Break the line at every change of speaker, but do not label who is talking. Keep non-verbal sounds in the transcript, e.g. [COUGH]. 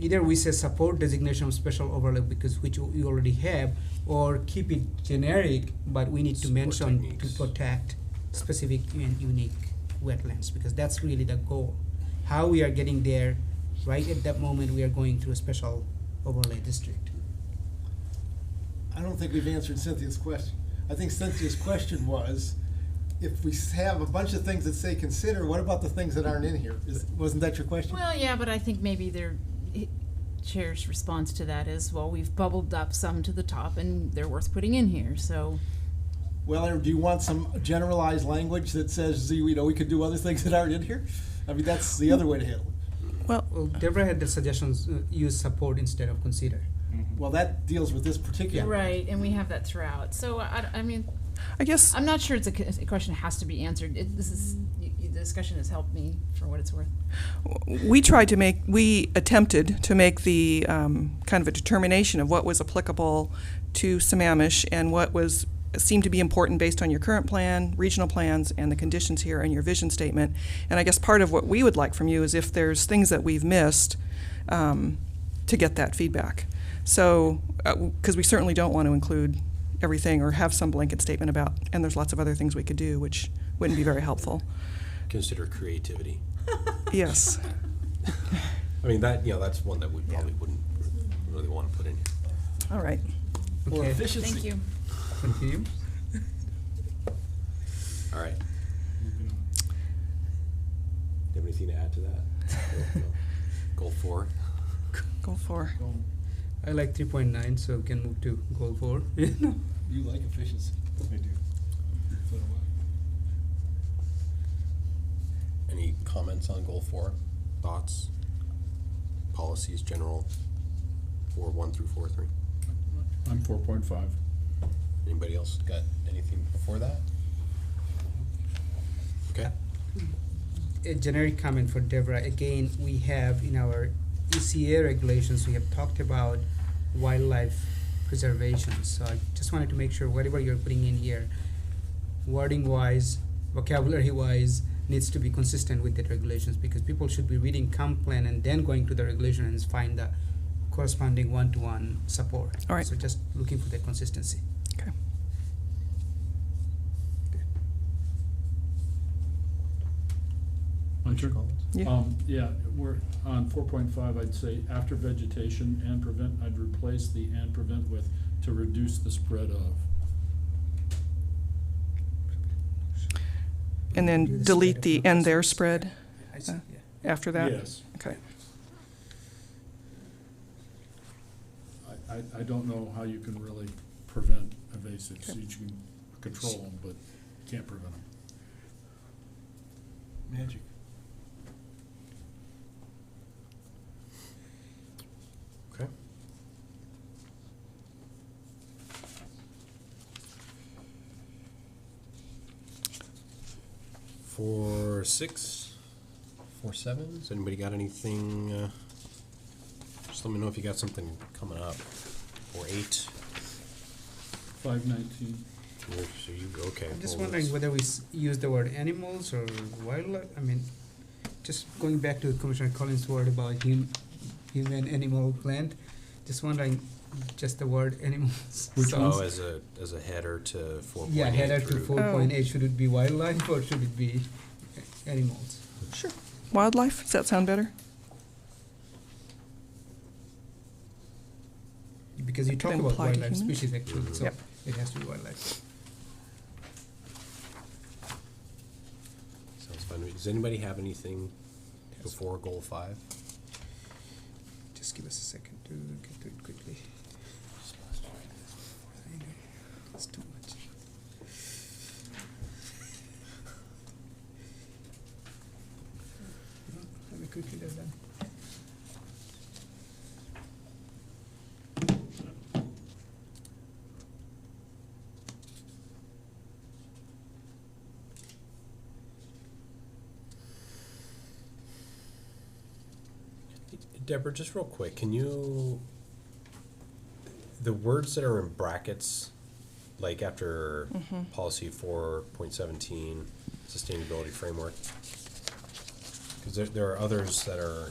either we say support designation of special overlay because which we already have or keep it generic but we need to
Support
mention
techniques.
to protect specific and unique wetlands because that's really the goal how we are getting there right at that moment we are going through a special overlay district
I don't think we've answered Cynthia's question. I think Cynthia's question was, if we s- have a bunch of things that say consider, what about the things that aren't in here? Is- Wasn't that your question?
Well, yeah, but I think maybe their i- chair's response to that is, well, we've bubbled up some to the top and they're worth putting in here, so.
Well, or do you want some generalized language that says, you know, we could do other things that aren't in here? I mean, that's the other way to handle it.
well deborah had the suggestions uh, use support instead of consider
Well, that deals with this particular.
Right, and we have that throughout, so I, I- I mean,
I guess
I'm not sure it's a, c- a question that has to be answered, it, this is, y- y- the discussion has helped me for what it's worth.
we tried to make, we attempted to make the um, kind of a determination of what was applicable to Sammamish and what was, seemed to be important based on your current plan, regional plans, and the conditions here and your vision statement. And I guess part of what we would like from you is if there's things that we've missed, um, to get that feedback. So, because we certainly don't want to include everything or have some blanket statement about, and there's lots of other things we could do, which wouldn't be very helpful.
Consider creativity.
Yes.
I mean, that, you know, that's one that we probably wouldn't really want to put in here.
All right.
Or
Okay.
efficiency.
Thank you.
[LAUGHS]
continue
All right. Do you have anything to add to that? No, no. Goal four?
Go for.
i like 3.9 so we can move to goal 4 [LAUGHS]
[LAUGHS]
You like efficiency. I do.
Any comments on goal four? Thoughts? Policies, general, four one through four three?
I'm four point five.
Anybody else got anything before that? Okay.
a generic comment for Deborah. Again, we have in our ECA regulations, we have talked about wildlife preservation. So I just wanted to make sure whatever you're putting in here, wording wise, vocabulary wise, needs to be consistent with the regulations because people should be reading comp plan and then going to the regulation and find the corresponding one-to-one support.
All right.
So just looking for that consistency.
Okay.
Hunter?
Yeah.
Um, yeah, we're on four point five, I'd say after vegetation and prevent, I'd replace the and prevent with to reduce the spread of.
And
Do
then
the
delete
spread
the
of
and their
numbers.
spread
I see,
Uh,
yeah.
after that?
Yes,
Okay.
I, I, I don't know how you can really prevent evasives, you can control them, but can't prevent them.
Magic.
Okay. Four six, four sevens. Anybody got anything? Uh, just let me know if you got something coming up. Four eight.
Five nineteen,
Or So you okay?
I'm just
well,
wondering
let's-
whether we s- use the word animals or wildlife, I mean, just going back to Commissioner Collins' word about hum, human, animal, plant, just wondering, just the word
[LAUGHS]
animals.
Oh,
sounds-
as a as a header to four point eight.
Yeah, header to
through-
four point
Oh.
eight, should it be wildlife or should it be a- animals?
Sure. Wildlife, does that sound better?
Because you
It
talk
could
about
imply to
wildlife
humans.
species actually, so
Yep.
it has to be wildlife.
Sounds fun. to me. Does anybody have anything before goal five?
Just give us a second to get to it quickly. Hang on, It's too much. No, Let me quickly do that.
Deborah, just real quick, can you, the words that are in brackets, like after policy four point seventeen, sustainability framework? Because there, there are others that are